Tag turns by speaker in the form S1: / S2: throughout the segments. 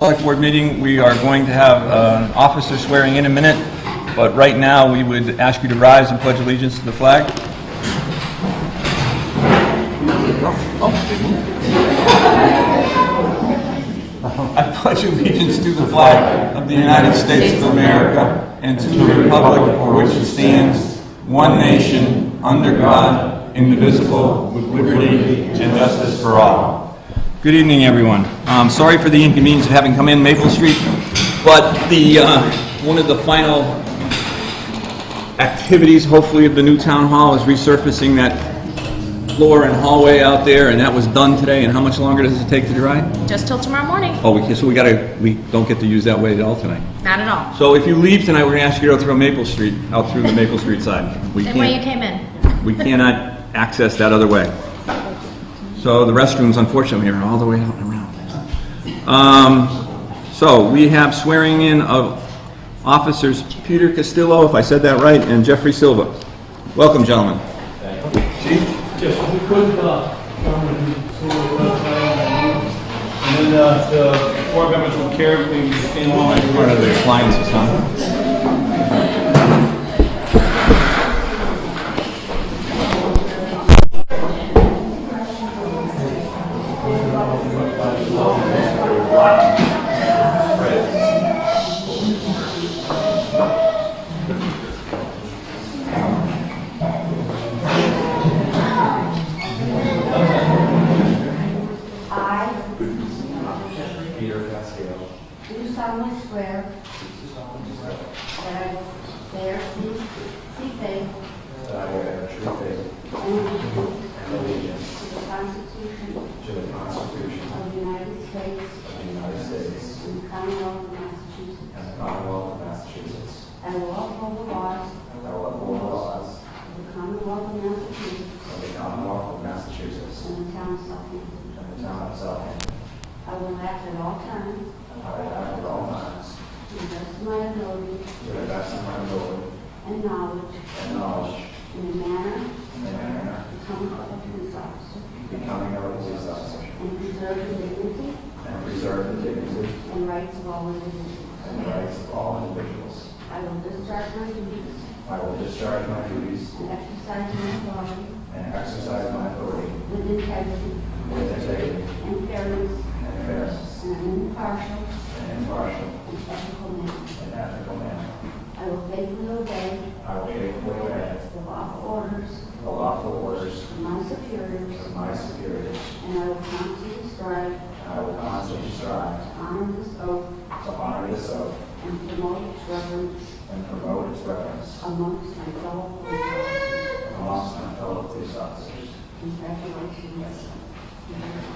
S1: Select Board meeting, we are going to have uh, an officer swearing in a minute, but right now, we would ask you to rise and pledge allegiance to the flag. I pledge allegiance to the flag of the United States of America and to the republic for which it stands, one nation, under God, indivisible, with liberty and justice for all. Good evening, everyone. I'm sorry for the inconvenience of having come in Maple Street, but the, uh, one of the final activities, hopefully, of the new town hall is resurfacing that floor and hallway out there, and that was done today, and how much longer does it take to dry?
S2: Just till tomorrow morning.
S1: Oh, we can, so we gotta, we don't get to use that way at all tonight.
S2: Not at all.
S1: So if you leave tonight, we're gonna ask you to go through Maple Street, out through the Maple Street side. We
S2: Same way you
S1: can't,
S2: came in.
S1: we cannot access that other way. So the restrooms unfortunately are all the way out and around. Um, so we have swearing in of officers Peter Castillo, if I said that right, and Jeffrey Silva. Welcome, gentlemen.
S3: Yes, if we could, uh, Chairman, so, uh, and then uh, the board members will carry everything in line.
S1: Part of the appliances, huh?
S4: I
S5: Peter Castillo,
S4: do solemnly swear that I will bear true faith
S5: that I will bear true faith
S4: and allegiance
S5: and allegiance
S4: to the Constitution
S5: to the Constitution
S4: of the United States
S5: of the United States
S4: and the Commonwealth of Massachusetts.
S5: and the Commonwealth of Massachusetts,
S4: I will uphold the laws
S5: and that I will uphold the laws
S4: of the Commonwealth of Massachusetts
S5: of the Commonwealth of Massachusetts
S4: and the town of Southampton.
S5: and the town of Southampton,
S4: I will act at all times
S5: and I will act at all times
S4: to the best of my ability
S5: to the best of my ability
S4: and knowledge
S5: and knowledge
S4: in a manner
S5: and manner
S4: becoming of a police officer
S5: becoming of a police officer,
S4: and preserve the dignity
S5: and preserve the dignity
S4: and rights of all individuals.
S5: and rights of all individuals.
S4: I will discharge my duties
S5: I will discharge my duties
S4: and exercise my authority
S5: and exercise my authority
S4: with integrity
S5: with integrity
S4: and fairness
S5: and fairness
S4: and an impartial
S5: and impartial
S4: and ethical manner.
S5: and ethical manner.
S4: I will faithfully obey
S5: I will faithfully obey
S4: the lawful orders
S5: the lawful orders
S4: of my superiors
S5: of my superiors,
S4: and I will constantly strive
S5: and I will constantly strive
S4: to honor this oath
S5: to honor this oath
S4: and promote its reverence
S5: and promote its reverence
S4: amongst my fellow police officers.
S5: amongst my fellow police officers.
S4: Congratulations.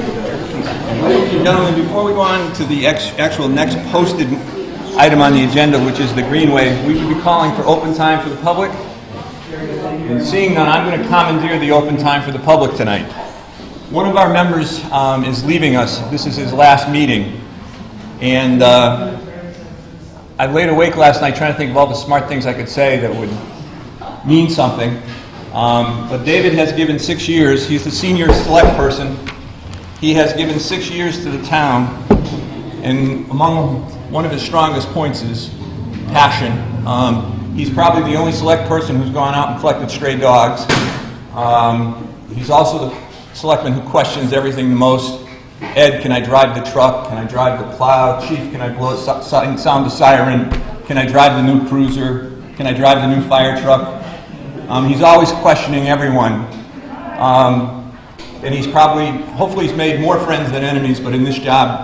S1: Ladies and gentlemen, before we go on to the ex- actual next posted item on the agenda, which is the Greenway, we will be calling for open time for the public. And seeing none, I'm going to commandeer the open time for the public tonight. One of our members um, is leaving us. This is his last meeting. And uh, I laid awake last night trying to think of all the smart things I could say that would mean something. Um, But David has given six years. He's the senior select person he has given six years to the town, and among one of his strongest points is passion. Um, he's probably the only select person who's gone out and collected stray dogs. Um, he's also the selectman who questions everything the most. Ed, can I drive the truck? Can I drive the plow? Chief, can I blow, so- so- sound the siren? Can I drive the new cruiser? Can I drive the new fire truck? Um, he's always questioning everyone. Um, and he's probably, hopefully, he's made more friends than enemies, but in this job,